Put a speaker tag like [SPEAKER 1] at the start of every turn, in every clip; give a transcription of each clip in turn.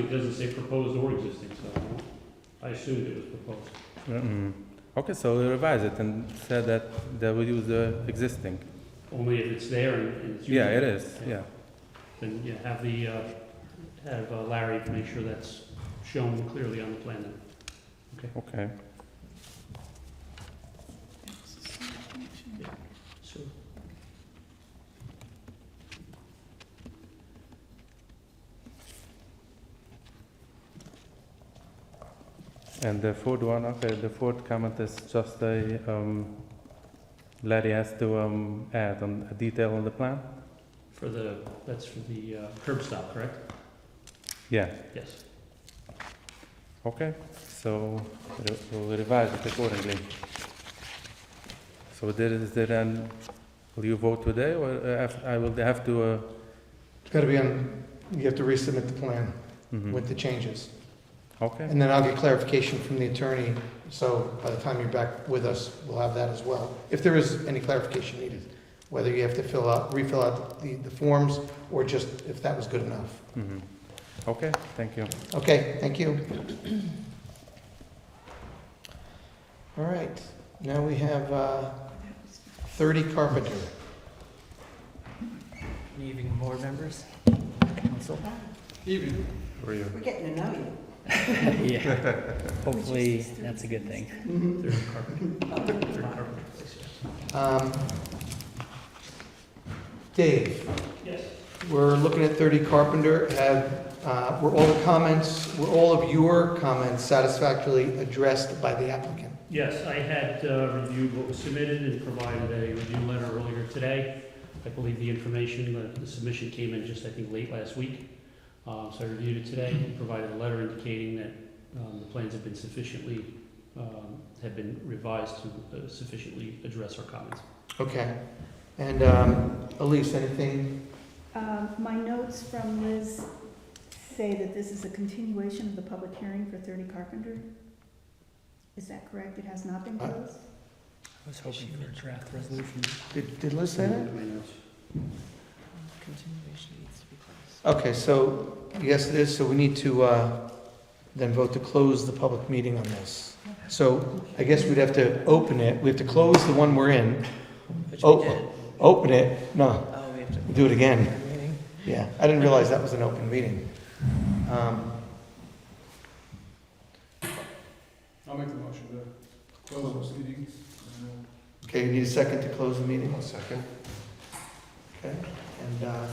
[SPEAKER 1] It doesn't say proposed or existing, so I assumed it was proposed.
[SPEAKER 2] Mm-mm. Mm-hmm. Okay, so we revise it and said that they will use the existing.
[SPEAKER 1] Only if it's there and and it's used.
[SPEAKER 2] Yeah, it is, yeah.
[SPEAKER 1] Then you have the, uh, have uh, Larry make sure that's shown clearly on the plan then.
[SPEAKER 2] Okay,
[SPEAKER 1] So,
[SPEAKER 2] and the fourth one, okay, the fourth comment is just a, um, Larry has to, um, add on a detail on the plan?
[SPEAKER 1] for the, that's for the uh, curb stop, correct?
[SPEAKER 2] Yeah,
[SPEAKER 1] Yes.
[SPEAKER 2] okay, so re- we'll revise it accordingly. So there is, there then, will you vote today or uh, af- I will have to, uh?
[SPEAKER 3] It's gotta be on, you have to resubmit the plan
[SPEAKER 2] mhm.
[SPEAKER 3] with the changes.
[SPEAKER 2] Okay,
[SPEAKER 3] And then I'll get clarification from the attorney, so by the time you're back with us, we'll have that as well. If there is any clarification needed, whether you have to fill out, refill out the, the forms, or just if that was good enough.
[SPEAKER 2] mhm. Okay, thank you.
[SPEAKER 3] Okay, thank you. All right, now we have, uh, thirty Carpenter.
[SPEAKER 4] Good evening, board members, council.
[SPEAKER 5] We're getting to know you.
[SPEAKER 4] Yeah, hopefully, that's a good thing.
[SPEAKER 1] Third carpet, third carpet.
[SPEAKER 3] Um, Dave?
[SPEAKER 1] Yes.
[SPEAKER 3] We're looking at 30 Carpenter. Have, uh, were all the comments, were all of your comments satisfactorily addressed by the applicant?
[SPEAKER 1] Yes, I had uh, reviewed what was submitted and provided a review letter earlier today. I believe the information, the- the submission came in just, I think, late last week. Uh, So I reviewed it today and provided a letter indicating that um, the plans have been sufficiently, um, have been revised to uh, sufficiently address our comments.
[SPEAKER 3] Okay. And um, Elise, anything?
[SPEAKER 6] Um, My notes from Liz say that this is a continuation of the public hearing for 30 Carpenter. Is that correct? It has not been
[SPEAKER 3] Uh,
[SPEAKER 6] closed?
[SPEAKER 4] I was hoping for a draft resolution.
[SPEAKER 3] Did did Liz say that?
[SPEAKER 1] My notes.
[SPEAKER 4] Continuation needs to be closed.
[SPEAKER 3] Okay, so yes, it is. So we need to uh, then vote to close the public meeting on this. So I guess we'd have to open it. We have to close the one we're in,
[SPEAKER 4] Which
[SPEAKER 3] Oh.
[SPEAKER 4] we did.
[SPEAKER 3] open it. No,
[SPEAKER 4] Oh, we have to.
[SPEAKER 3] do it again.
[SPEAKER 4] Meeting.
[SPEAKER 3] Yeah, I didn't realize that was an open meeting. Um,
[SPEAKER 7] I'll make the motion uh, to close this meeting.
[SPEAKER 3] Okay, you need a second to close the meeting? One second. Okay, and, uh,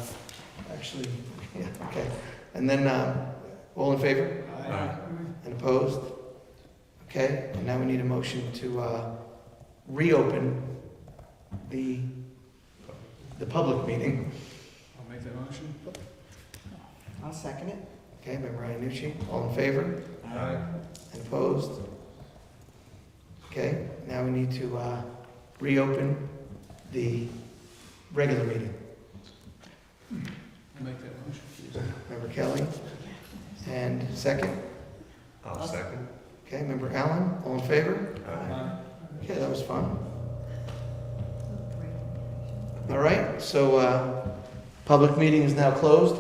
[SPEAKER 3] actually, yeah, okay. And then, uh, all in favor and opposed? Okay, and now we need a motion to, uh, reopen the, the public meeting.
[SPEAKER 7] I'll make that motion.
[SPEAKER 5] I'll second it.
[SPEAKER 3] Okay, by Ryan Nucci, all in favor and opposed? Okay, now we need to, uh, reopen the regular meeting.
[SPEAKER 7] I'll make that motion.
[SPEAKER 3] Member Kelly, and second,
[SPEAKER 5] I'll second.
[SPEAKER 3] okay, member Allen, all in favor? Okay, that was fun. All right, so, uh, public meeting is now closed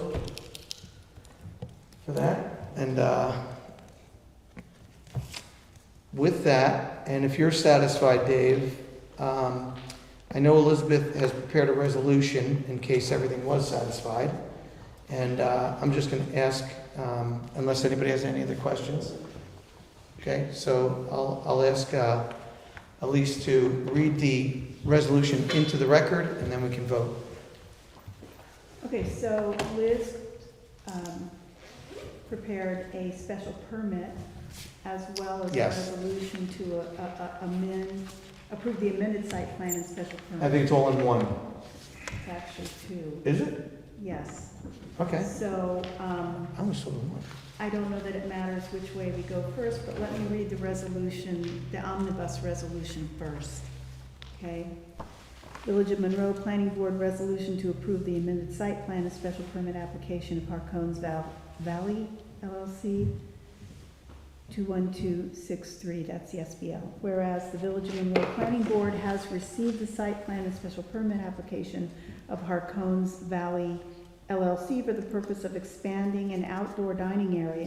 [SPEAKER 3] for that, and, uh, with that, and if you're satisfied, Dave, um, I know Elizabeth has prepared a resolution in case everything was satisfied, and, uh, I'm just gonna ask, um, unless anybody has any other questions. Okay, so I'll, I'll ask, uh, Elise to read the resolution into the record, and then we can vote.
[SPEAKER 6] Okay, so Liz um, prepared a special permit as well as a
[SPEAKER 3] Yes.
[SPEAKER 6] resolution to a- a- a- amend, approve the amended site plan and special permit.
[SPEAKER 3] I think it's all in one.
[SPEAKER 6] It's actually two,
[SPEAKER 3] Is it?
[SPEAKER 6] yes.
[SPEAKER 3] Okay.
[SPEAKER 6] So um,
[SPEAKER 3] I was sort of one.
[SPEAKER 6] I don't know that it matters which way we go first, but let me read the resolution, the omnibus resolution first, okay? Village of Monroe Planning Board Resolution to approve the amended site plan and special permit application of Harcone's Val- Valley LLC, 21263, that's the SBL. Whereas the Village of Monroe Planning Board has received the site plan and special permit application of Harcone's Valley LLC for the purpose of expanding an outdoor dining area